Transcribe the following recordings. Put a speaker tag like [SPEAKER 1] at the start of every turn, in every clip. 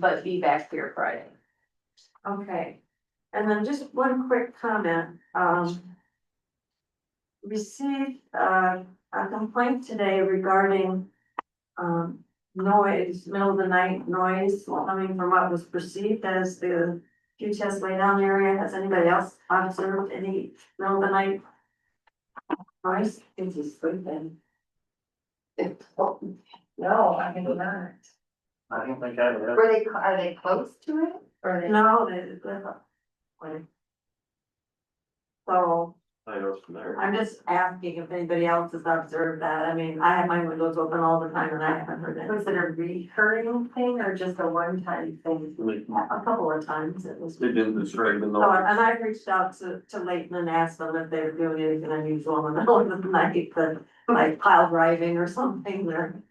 [SPEAKER 1] but be back here Friday.
[SPEAKER 2] Okay, and then just one quick comment, um. Received uh, a complaint today regarding, um, noise, middle of the night noise coming from what was perceived as the. QTS laydown area, has anybody else observed any middle of the night? Noise,
[SPEAKER 1] Is he sleeping?
[SPEAKER 2] oh,
[SPEAKER 1] No, I mean, not.
[SPEAKER 3] I don't think I would.
[SPEAKER 1] Were they, cl- are they close to it or they?
[SPEAKER 2] no, they- they're- So.
[SPEAKER 3] I know from there.
[SPEAKER 2] I'm just asking if anybody else has observed that, I mean, I have my windows open all the time and I haven't heard it.
[SPEAKER 1] Was it a recurring thing or just a one-time thing?
[SPEAKER 3] They
[SPEAKER 2] A couple of times it was.
[SPEAKER 3] they didn't describe the
[SPEAKER 2] So,
[SPEAKER 3] noise.
[SPEAKER 2] and I reached out to, to Leighton and asked them if they were doing anything unusual in the middle of the night, but like pile driving or something or,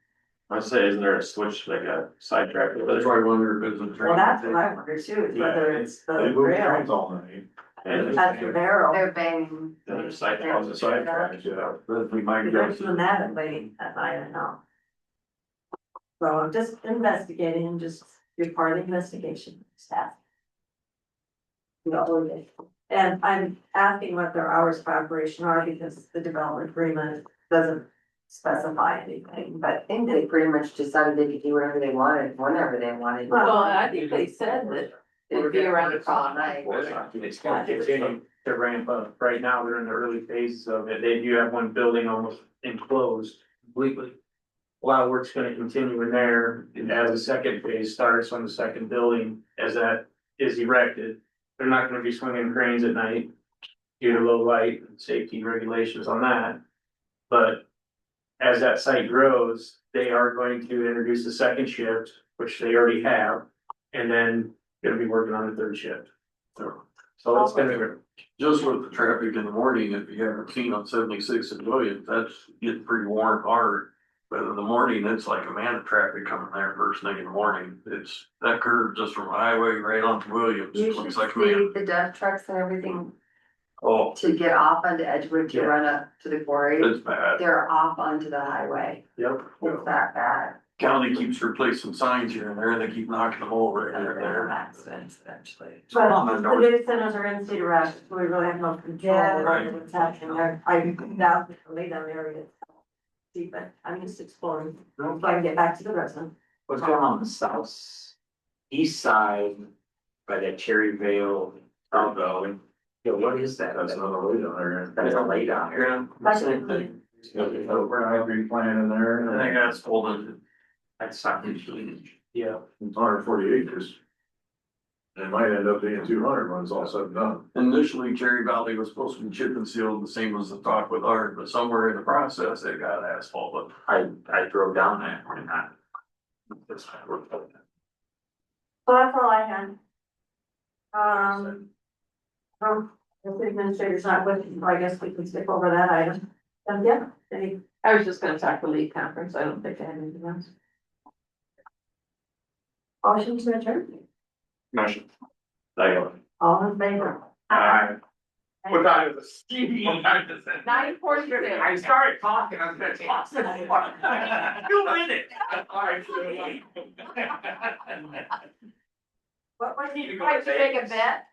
[SPEAKER 3] I say, isn't there a switch that got sidetracked? That's
[SPEAKER 4] That's why I wonder if it's a train.
[SPEAKER 2] well, that's what I wonder too, is whether it's the rail.
[SPEAKER 4] all night.
[SPEAKER 2] That's the barrel,
[SPEAKER 1] They're banging.
[SPEAKER 3] The other side
[SPEAKER 1] They're-
[SPEAKER 5] oh,
[SPEAKER 3] calls it sidetrack.
[SPEAKER 4] Yeah, but we might
[SPEAKER 2] they're
[SPEAKER 4] guess.
[SPEAKER 2] doing that at late at night, I don't know. So I'm just investigating and just, you're part of the investigation staff. You know, all of it. And I'm asking what their hours of operation are because the development agreement doesn't specify anything, but
[SPEAKER 6] I think they pretty much decided they could do whatever they wanted, whenever they wanted.
[SPEAKER 2] Well, I think they said that
[SPEAKER 6] It'd be around the clock night.
[SPEAKER 5] It's gonna continue to ramp up. Right now, they're in the early phases of it. They do have one building almost enclosed completely. A lot of work's gonna continue in there and as the second phase starts on the second building, as that is erected. They're not gonna be swinging cranes at night due to low light and safety regulations on that. But as that site grows, they are going to introduce a second shift, which they already have, and then gonna be working on a third shift. So it's gonna,
[SPEAKER 4] Just with the traffic in the morning, if you haven't seen on seventy-six and Williams, that's getting pretty warm hard. But in the morning, it's like a man of traffic coming there first thing in the morning. It's that curve just from highway right onto Williams.
[SPEAKER 6] You should
[SPEAKER 4] Looks
[SPEAKER 6] see
[SPEAKER 4] like a man.
[SPEAKER 6] the dump trucks and everything
[SPEAKER 4] Oh,
[SPEAKER 6] to get off onto Edgewood to
[SPEAKER 5] Yeah.
[SPEAKER 6] run up to the quarry.
[SPEAKER 4] it's bad.
[SPEAKER 6] They're off onto the highway.
[SPEAKER 5] yep,
[SPEAKER 6] It's that bad.
[SPEAKER 4] County keeps replacing signs here and there and they keep knocking them over and there.
[SPEAKER 6] Accidents eventually.
[SPEAKER 4] It's on the
[SPEAKER 2] But the
[SPEAKER 4] north-
[SPEAKER 2] data centers are in city rush, so we really have no control
[SPEAKER 6] Yeah.
[SPEAKER 2] over
[SPEAKER 4] Right.
[SPEAKER 2] what's happening there. I doubt the lay down area. is deep, but I'm just exploring, so I can get back to the resident.
[SPEAKER 5] what's going on the south, east side by that Cherry Vale, Elbow, and, you know, what is that?
[SPEAKER 3] That's another way down there.
[SPEAKER 5] That's a lay down here.
[SPEAKER 2] That's it.
[SPEAKER 4] Green plant in there. I think that's pulled in,
[SPEAKER 5] That's not usually, yeah.
[SPEAKER 7] hundred and forty acres. And it might end up being two hundred when it's all said and done.
[SPEAKER 4] initially Cherry Valley was supposed to be chip and sealed, the same as the talk with Art, but somewhere in the process, they got asphalt,
[SPEAKER 5] I, I drove down that and I. that's not worth it.
[SPEAKER 2] So that's all I had. Um. From the city administrator's not with, you, so I guess we can skip over that item. Um, yeah, any,
[SPEAKER 1] I was just gonna talk the lead conference. I don't think I have anything else.
[SPEAKER 2] motion to adjourn,
[SPEAKER 3] Motion. Second.
[SPEAKER 2] all in favor?
[SPEAKER 3] Aye.
[SPEAKER 5] What time is this? What time is it?
[SPEAKER 1] Nine forty-six.
[SPEAKER 5] I started talking, I was gonna talk. You win it.
[SPEAKER 2] What was
[SPEAKER 5] You
[SPEAKER 2] it,
[SPEAKER 5] go
[SPEAKER 2] why did you make a
[SPEAKER 5] Vegas.
[SPEAKER 2] bet?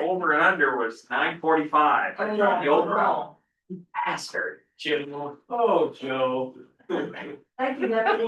[SPEAKER 5] Over and under was nine forty-five, I tried the overall. Bastard. Jim. Oh, Joe.
[SPEAKER 2] Thank you, deputy.